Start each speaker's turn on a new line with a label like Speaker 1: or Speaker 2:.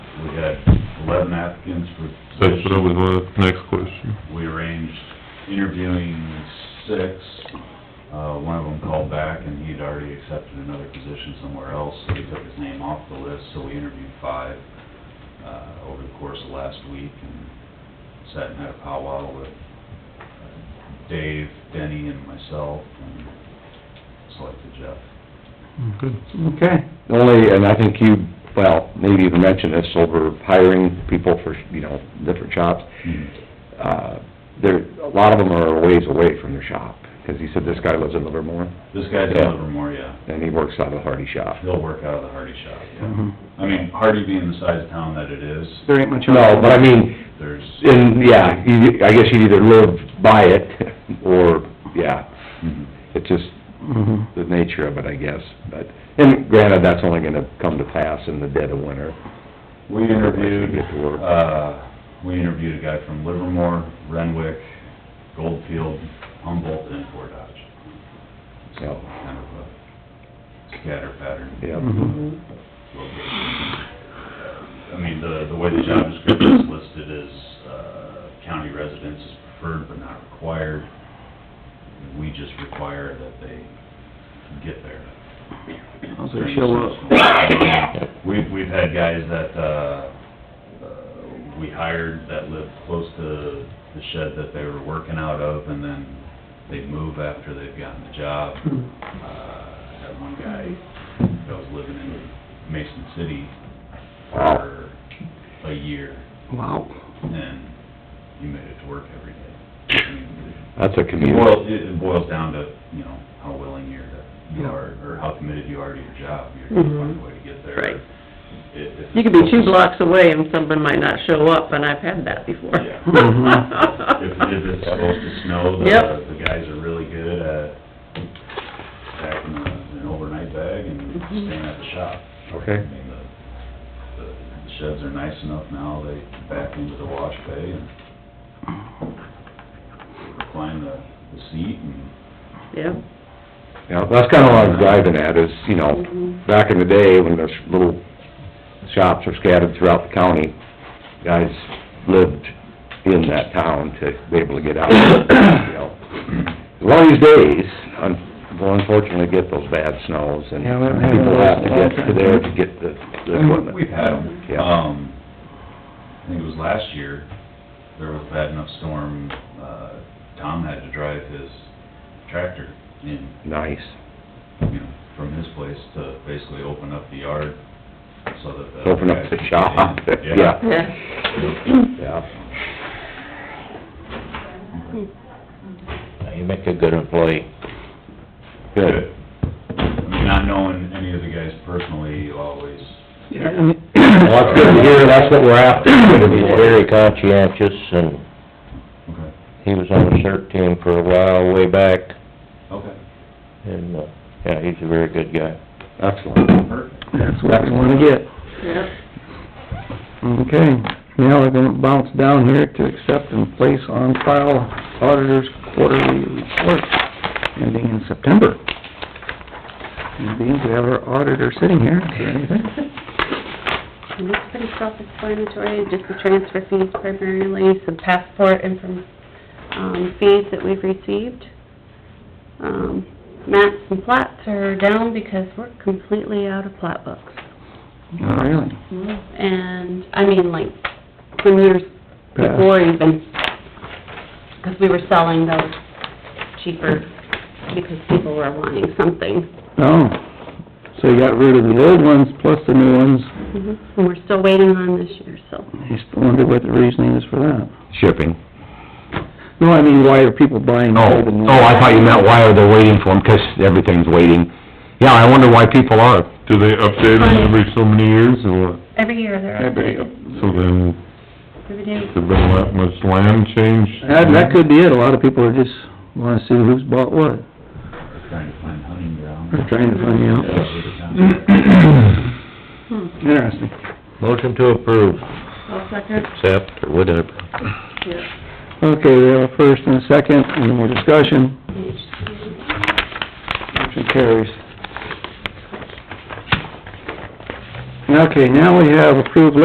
Speaker 1: we had eleven applicants for
Speaker 2: That's what I
Speaker 1: position.
Speaker 2: was, my next question.
Speaker 1: We arranged interviewing six. Uh, one of them called back and he'd already accepted another position somewhere else, so he took his name off the list, so we interviewed five, uh, over the course of last week and sat and had a powwow with uh, Dave, Denny and myself and selected Jeff.
Speaker 2: Good.
Speaker 3: Okay. Only, and I think you, well, maybe even mentioned this over hiring people for, you know, different shops.
Speaker 4: Mm-hmm.
Speaker 3: Uh, there, a lot of them are a ways away from their shop, 'cause he said this guy lives in Livermore,
Speaker 1: This guy's in
Speaker 3: Yeah.
Speaker 1: Livermore, yeah.
Speaker 3: and he works out of the Hardy shop.
Speaker 1: He'll work out of the Hardy shop, yeah.
Speaker 4: Mhm.
Speaker 1: I mean, Hardy being the size of town that it is,
Speaker 4: There ain't much.
Speaker 3: Mm-hmm. No, but I mean,
Speaker 1: there's,
Speaker 3: in, yeah, he, I guess you either live by it, or, yeah,
Speaker 4: Hmm.
Speaker 1: Mhm.
Speaker 3: it's just
Speaker 4: Mhm.
Speaker 3: the nature of it, I guess, but, and granted, that's only gonna come to pass in the dead of winter.
Speaker 1: we interviewed,
Speaker 3: Get to work.
Speaker 1: uh, we interviewed a guy from Livermore, Renwick, Goldfield, Humboldt, and Fort Dodge. So,
Speaker 3: Yep.
Speaker 1: kind of a scatter pattern.
Speaker 3: Yep.
Speaker 4: Mhm.
Speaker 1: I mean, the, the way the job description is listed is, uh, county residence is preferred but not required. We just require that they get there.
Speaker 4: How's they show up?
Speaker 1: We've, we've had guys that, uh, uh, we hired that lived close to the shed that they were working out of, and then they move after they've gotten the job.
Speaker 5: Hmm.
Speaker 1: Uh, I had one guy that was living in Mason City for a year,
Speaker 4: Wow.
Speaker 1: and he made it to work every day. I mean,
Speaker 3: That's a
Speaker 1: it
Speaker 3: commute.
Speaker 1: boils, it it boils down to, you know, how willing you're, to- you
Speaker 4: Yeah.
Speaker 1: are, or how committed you are to your job, you're gonna find a way to get there.
Speaker 5: Right.
Speaker 1: If- if
Speaker 5: Mm-hmm. You could be two
Speaker 1: it's-
Speaker 5: blocks away and someone might not show up, and I've had that before.
Speaker 1: Yeah. If, if it's supposed to snow,
Speaker 5: Yep.
Speaker 1: the, the guys are really good at packing a- an overnight bag and
Speaker 5: Mhm.
Speaker 1: staying at the shop. I
Speaker 3: Okay.
Speaker 1: mean, the, the the sheds are nice enough now, they back into the wash bay and recline the, the seat and
Speaker 5: Yeah.
Speaker 3: Yeah, that's kinda what I
Speaker 6: Uh-huh.
Speaker 3: was driving at, is, you know,
Speaker 6: Mm-hmm.
Speaker 3: back in the day, when those little shops were scattered throughout the county, guys lived in that town to be able to get out, you know. One of these days, un- we'll unfortunately get those bad snows, and
Speaker 4: Yeah, we haven't had
Speaker 3: people
Speaker 4: those
Speaker 3: have to
Speaker 4: in a long
Speaker 3: get to
Speaker 4: time.
Speaker 3: there to get the, the
Speaker 4: And
Speaker 3: equipment.
Speaker 1: We've had them.
Speaker 3: Yeah,
Speaker 1: Um, I think it was last year, there was a bad enough storm, uh, Tom had to drive his tractor in,
Speaker 3: nice.
Speaker 1: you know, from his place to basically open up the yard so that the...
Speaker 3: Open up the shop, yeah,
Speaker 5: Yeah.
Speaker 3: yeah.
Speaker 6: You make a good employee.
Speaker 3: Good.
Speaker 1: I mean, Not knowing any of the guys personally, you always,
Speaker 4: Yeah, and
Speaker 3: Well, that's good to hear, that's what we're after, good
Speaker 6: He's very conscientious, and
Speaker 1: okay,
Speaker 6: he was on the CERT team for a while way back,
Speaker 1: okay,
Speaker 6: and, uh, yeah, he's a very good guy.
Speaker 3: Excellent.
Speaker 1: perfect.
Speaker 4: that's what we wanna get.
Speaker 5: Yeah.
Speaker 4: Okay, now we're gonna bounce down here to accept and place on file auditor's quarterly report ending in September. And being we have our auditor sitting here, is there anything?
Speaker 7: And it's pretty self-explanatory, just the transfer fees primarily, some passport and from, um, fees that we've received. Um, maps and plats are down because we're completely out of plat books.
Speaker 4: Oh, really?
Speaker 7: And, I mean, like, from years before even, because we were selling those cheaper because people were wanting something.
Speaker 4: Oh, so you got rid of the old ones plus the new ones,
Speaker 7: And we're still waiting on this year, so.
Speaker 4: I just wonder what the reasoning is for that.
Speaker 3: Shipping.
Speaker 4: No, I mean, why are people buying
Speaker 3: Oh,
Speaker 4: old and new?
Speaker 3: oh, I thought you meant why are they waiting for them, 'cause everything's waiting. Yeah, I wonder why people are.
Speaker 2: Do they update them every so many years, or what?
Speaker 7: Every year they're
Speaker 4: Every-
Speaker 7: updated.
Speaker 2: So then,
Speaker 7: Every day.
Speaker 2: has there been that much land change?
Speaker 4: That, that could be it, a lot of people are just wanna see who's bought what,
Speaker 1: We're Trying to find hunting ground.
Speaker 4: they're trying to find out.
Speaker 5: Hmm.
Speaker 4: Interesting.
Speaker 6: Motion to approve,
Speaker 5: I'll second.
Speaker 6: accept, or whatever.
Speaker 5: Yeah.
Speaker 4: Okay, we have a first and a second, any more discussion? Motion carries. Okay, now we have approved